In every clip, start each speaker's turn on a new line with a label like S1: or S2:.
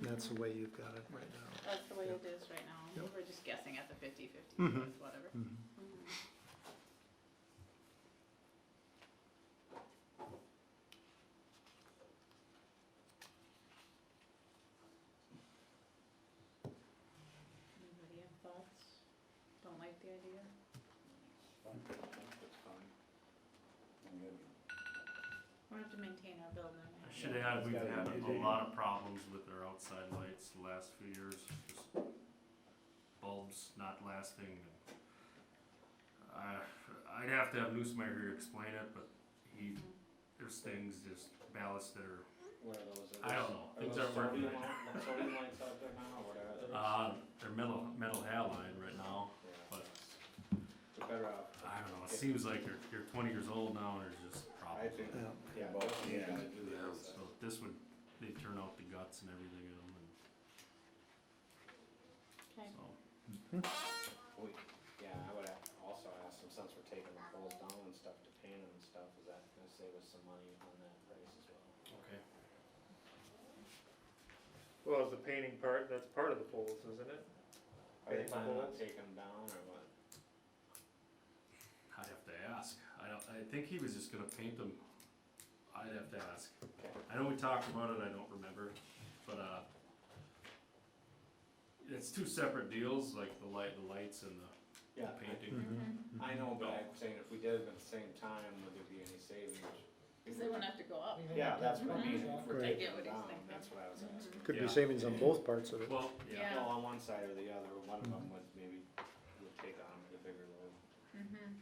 S1: that's the way you've got it right now.
S2: That's the way it is right now.
S1: Yep.
S2: We're just guessing at the fifty-fifty
S1: Mhm.
S2: with whatever.
S1: Mhm.
S2: Mhm. Anybody have thoughts? Don't like the idea? We have to maintain our building.
S3: I should add, we've had a lot of problems with our outside lights the last few years. just Bulbs not lasting. I, I'd have to have Newsmeyer here explain it, but he, there's things just ballast that are,
S4: What are those?
S3: I don't know, things aren't working right now.
S4: now. Sodium lights out there now, or what are they?
S3: Uh, they're metal, metal halide right now.
S4: Yeah.
S3: but-
S4: We're better off,
S3: I don't know, it seems like you're, you're twenty years old now and there's just
S4: I
S3: problems.
S4: think,
S1: Yeah.
S4: yeah,
S5: Both,
S4: both, yeah,
S5: yeah.
S4: gotta do the other
S3: So
S4: side.
S3: this would, they turn out the guts and everything in them and
S2: Okay,
S3: so.
S4: We, yeah, I would a- also ask them, since we're taking the poles down and stuff to paint them and stuff, is that gonna save us some money on that price as well?
S3: Okay.
S6: Well, is the painting part, that's part of the poles, isn't it?
S4: Are you
S6: Paint the
S4: planning on
S6: poles?
S4: taking them down or what?
S3: I'd have to ask. I don't, I think he was just gonna paint them. I'd have to ask. I know we talked about it, I don't remember, but, uh, it's two separate deals, like the light, the lights and the
S4: Yeah, I-
S3: painting.
S4: I know, but I'm saying if we did them at the same time, would there be any savings?
S2: because they wouldn't have to go up.
S4: Yeah, that's what I mean, if we're
S1: Right.
S2: I get
S4: taking them
S2: what he's
S4: down,
S2: thinking.
S4: that's what I was asking.
S1: Could
S3: Yeah.
S1: be savings on both parts of it.
S3: Well,
S2: Yeah.
S3: yeah,
S4: Well, on one side or the other, one of them would maybe would take on the bigger load.
S2: Mm-hmm.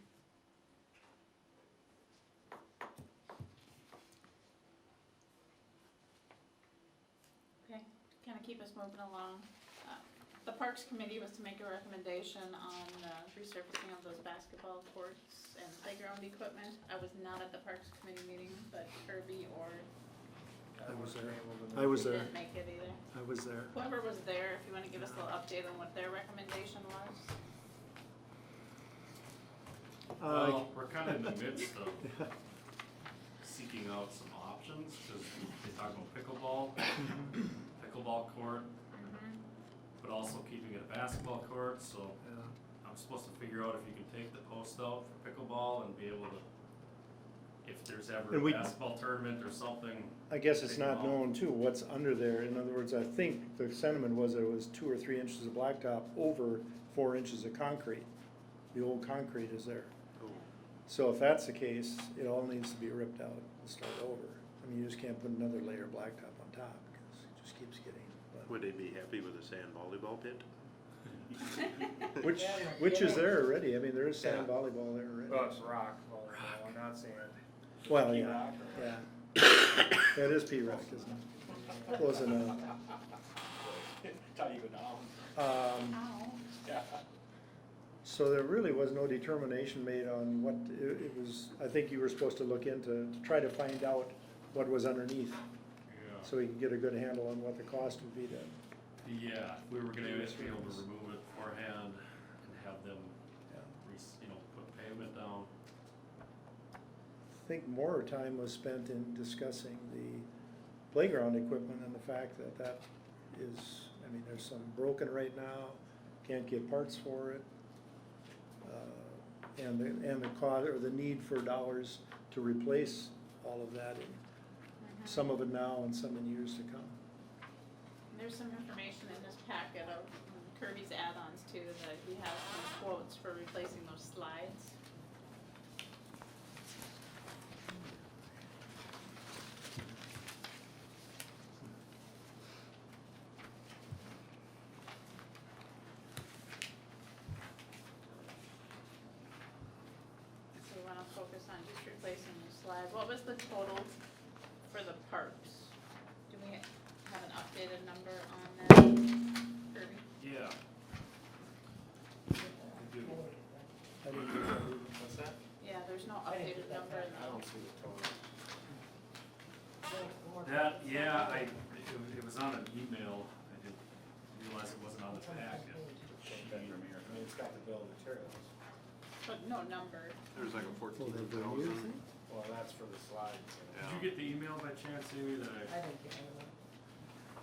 S2: Okay, kind of keep us moving along. Uh, The Parks Committee was to make a recommendation on the resurfacing of those basketball courts and playground equipment. I was not at the Parks Committee meeting, but Kirby or
S1: I was there. I was there.
S2: didn't make it either.
S1: I was there.
S2: Whoever was there, if you want to give us a little update on what their recommendation was.
S1: Uh, Oh.
S3: well, we're kinda in the midst of seeking out some options, cause they talk about pickleball, pickleball court,
S2: Mhm.
S3: but also keeping it a basketball court, so
S1: yeah.
S3: I'm supposed to figure out if you can take the post out for pickleball and be able to, if there's ever
S1: And
S3: a
S1: we-
S3: basketball tournament or something.
S1: I guess it's not known too, what's under there, in other words, I think the sentiment was there was two or three inches of blacktop over four inches of concrete. The old concrete is there. So if that's the case, it all needs to be ripped out and start over. I mean, you just can't put another layer of blacktop on top, because it just keeps getting, but-
S7: Would they be happy with a sand volleyball pit?
S1: which, which is there already, I mean, there is sand volleyball there already.
S6: Well, it's rock, well, no, not sand.
S1: Well, yeah, yeah. That is P-rock, isn't it? Close enough.
S4: Tell you go down.
S1: Um,
S2: Ow.
S1: So there really was no determination made on what, it, it was, I think you were supposed to look into, to try to find out what was underneath, so we can get a good handle on what the cost would be to,
S3: Yeah, we were gonna be able to remove it beforehand and have them, re- you know, put pavement down.
S1: I think more time was spent in discussing the playground equipment and the fact that that is, I mean, there's some broken right now, can't get parts for it. uh, And the, and the cost, or the need for dollars to replace all of that, and
S2: Mhm.
S1: some of it now and some in years to come.
S2: There's some information in this packet of Kirby's add-ons too, that he has some quotes for replacing those slides. So we wanna focus on just replacing the slides. What was the total for the parks? Do we have an updated number on that, Kirby?
S3: Yeah. We do.
S1: I didn't get that.
S4: What's that?
S2: Yeah, there's no updated number in
S4: I don't
S2: the,
S4: see the total.
S3: That, yeah, I, it, wa- it was on an email, I didn't realize it wasn't on the packet.
S4: I mean, it's got the bill of materials.
S2: but no number.
S7: There's like a
S1: Well,
S7: fourteen
S1: they're very using.
S7: thousand.
S4: Well, that's for the slides. you know.
S3: Did you get the email by chance, Amy, that I,
S8: I didn't get any of it.